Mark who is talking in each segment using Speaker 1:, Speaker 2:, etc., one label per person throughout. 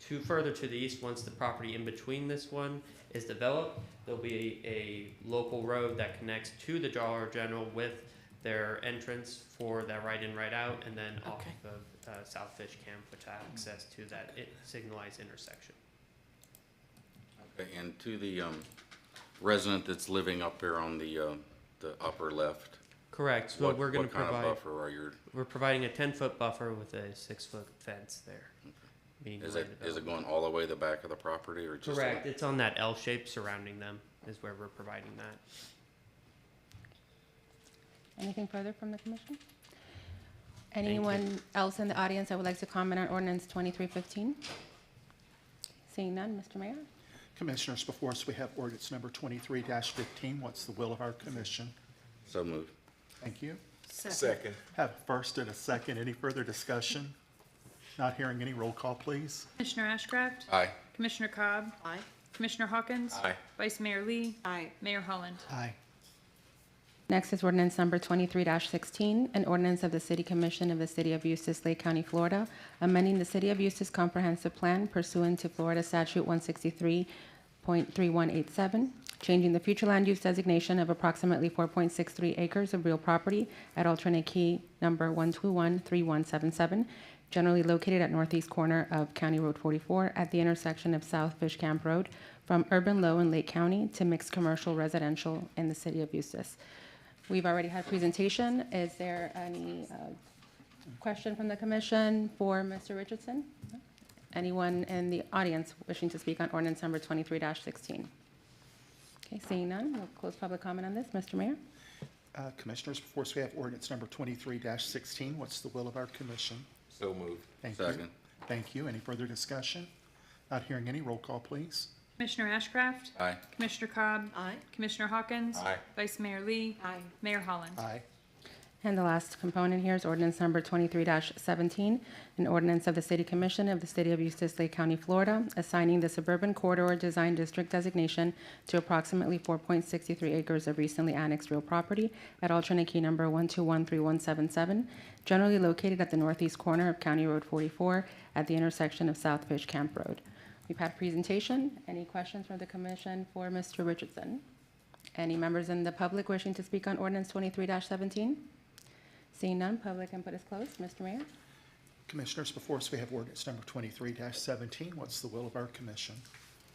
Speaker 1: Two further to the east, once the property in between this one is developed, there'll be a local road that connects to the Dollar General with their entrance for that right in, right out, and then off
Speaker 2: Okay.
Speaker 1: of uh, South Fish Camp, which has access to that i- signalized intersection.
Speaker 3: Okay, And to the um, resident that's living up there on the, uh, the upper left?
Speaker 1: Correct, so
Speaker 3: what-
Speaker 1: we're gonna
Speaker 3: What kind
Speaker 1: provide,
Speaker 3: of buffer are your,
Speaker 1: we're providing a ten-foot buffer with a six-foot fence there. meaning
Speaker 3: is
Speaker 1: where
Speaker 3: it,
Speaker 1: the
Speaker 3: is it
Speaker 1: development-
Speaker 3: going all the way to the back of the property or just?
Speaker 1: Correct, it's on that L shape surrounding them is where we're providing that.
Speaker 4: Anything further from the commission? Anyone else in the audience that would like to comment on ordinance 2315? Seeing none, Mr. Mayor?
Speaker 5: Commissioners, before us, we have ordinance number twenty-three fifteen. What's the will of our commission?
Speaker 3: So moved.
Speaker 5: Thank you.
Speaker 6: Second.
Speaker 5: Have a first and a second. Any further discussion? Not hearing any. Roll call, please.
Speaker 7: Commissioner Ashcraft?
Speaker 3: Aye.
Speaker 7: Commissioner Cobb?
Speaker 2: Aye.
Speaker 7: Commissioner Hawkins?
Speaker 3: Aye.
Speaker 7: Vice Mayor Lee?
Speaker 2: Aye.
Speaker 7: Mayor Holland?
Speaker 5: Aye.
Speaker 4: Next is ordinance number 23-16, an ordinance of the City Commission of the City of Eustis, Lake County, Florida, amending the City of Eustis Comprehensive Plan pursuant to Florida Statute 163.3187, changing the future land use designation of approximately 4.63 acres of real property at alternate key number 1213177, generally located at northeast corner of County Road 44 at the intersection of South Fish Camp Road, from urban low in Lake County to mixed commercial residential in the City of Eustis. We've already had presentation. Is there any uh, question from the commission for Mr. Richardson? Anyone in the audience wishing to speak on ordinance number 23-16? Okay, seeing none, we'll close public comment on this. Mr. Mayor?
Speaker 5: Uh, Commissioners, before us, we have ordinance number twenty-three sixteen. What's the will of our commission?
Speaker 6: So moved.
Speaker 5: Thank you.
Speaker 3: Second.
Speaker 5: Thank you. Any further discussion? Not hearing any. Roll call, please.
Speaker 7: Commissioner Ashcraft?
Speaker 3: Aye.
Speaker 7: Commissioner Cobb?
Speaker 2: Aye.
Speaker 7: Commissioner Hawkins?
Speaker 6: Aye.
Speaker 7: Vice Mayor Lee?
Speaker 2: Aye.
Speaker 7: Mayor Holland?
Speaker 5: Aye.
Speaker 4: And the last component here is ordinance number 23-17, an ordinance of the City Commission of the City of Eustis, Lake County, Florida, assigning the Suburban Corridor Design District designation to approximately 4.63 acres of recently annexed real property at alternate key number 1213177, generally located at the northeast corner of County Road 44 at the intersection of South Fish Camp Road. We've had presentation. Any questions from the commission for Mr. Richardson? Any members in the public wishing to speak on ordinance 23-17? Seeing none, public input is closed. Mr. Mayor?
Speaker 5: Commissioners, before us, we have ordinance number twenty-three seventeen. What's the will of our commission?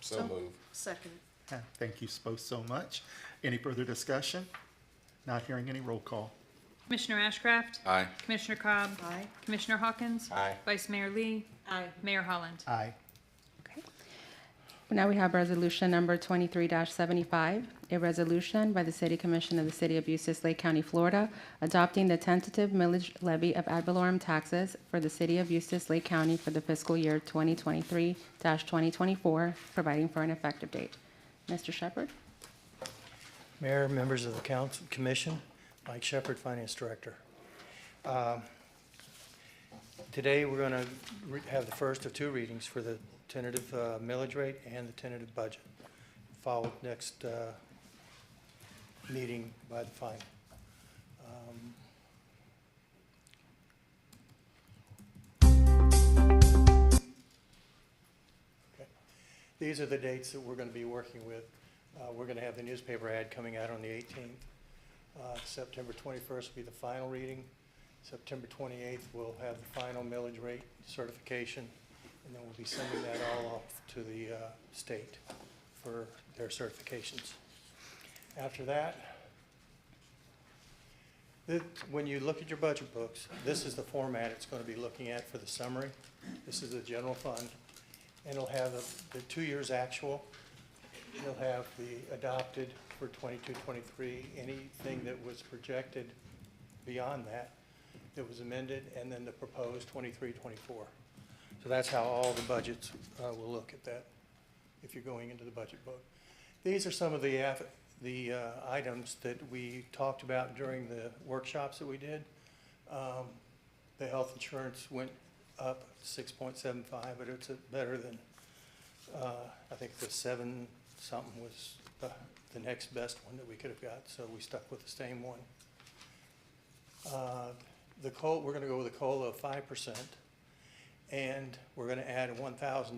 Speaker 6: So moved.
Speaker 2: Second.
Speaker 5: Uh, Thank you both so much. Any further discussion? Not hearing any. Roll call.
Speaker 7: Commissioner Ashcraft?
Speaker 3: Aye.
Speaker 7: Commissioner Cobb?
Speaker 2: Aye.
Speaker 7: Commissioner Hawkins?
Speaker 6: Aye.
Speaker 7: Vice Mayor Lee?
Speaker 2: Aye.
Speaker 7: Mayor Holland?
Speaker 5: Aye.
Speaker 4: Okay. Now we have resolution number 23-75, a resolution by the City Commission of the City of Bucis, Lake County, Florida, adopting the tentative millage levy of ad valorem taxes for the City of Bucis, Lake County for the fiscal year 2023-2024, providing for an effective date. Mr. Shepherd?
Speaker 8: Mayor, members of the council, commission, Mike Shepard, Finance Director. Um, Today, we're going to have the first of two readings for the tentative uh, millage rate and the tentative budget, followed next uh, meeting by the final. Um, okay. These are the dates that we're going to be working with. Uh, We're going to have the newspaper ad coming out on the 18th. Uh, September 21st will be the final reading. September 28th, we'll have the final millage rate certification, and then we'll be sending that all off to the uh, state for their certifications. After that, the- when you look at your budget books, this is the format it's going to be looking at for the summary. This is the general fund, and it'll have the- the two years actual, You'll have the adopted for 22, 23, anything that was projected beyond that, that was amended, and then the proposed 23, 24. So that's how all the budgets uh, will look at that, if you're going into the budget book. These are some of the, aff- the uh, items that we talked about during the workshops that we did. Um, The health insurance went up 6.75, but it's a- better than uh, I think the seven something was the, the next best one that we could have got, so we stuck with the same one. Uh, The COLA, we're gonna go with a COLA of five percent, and we're gonna add one thousand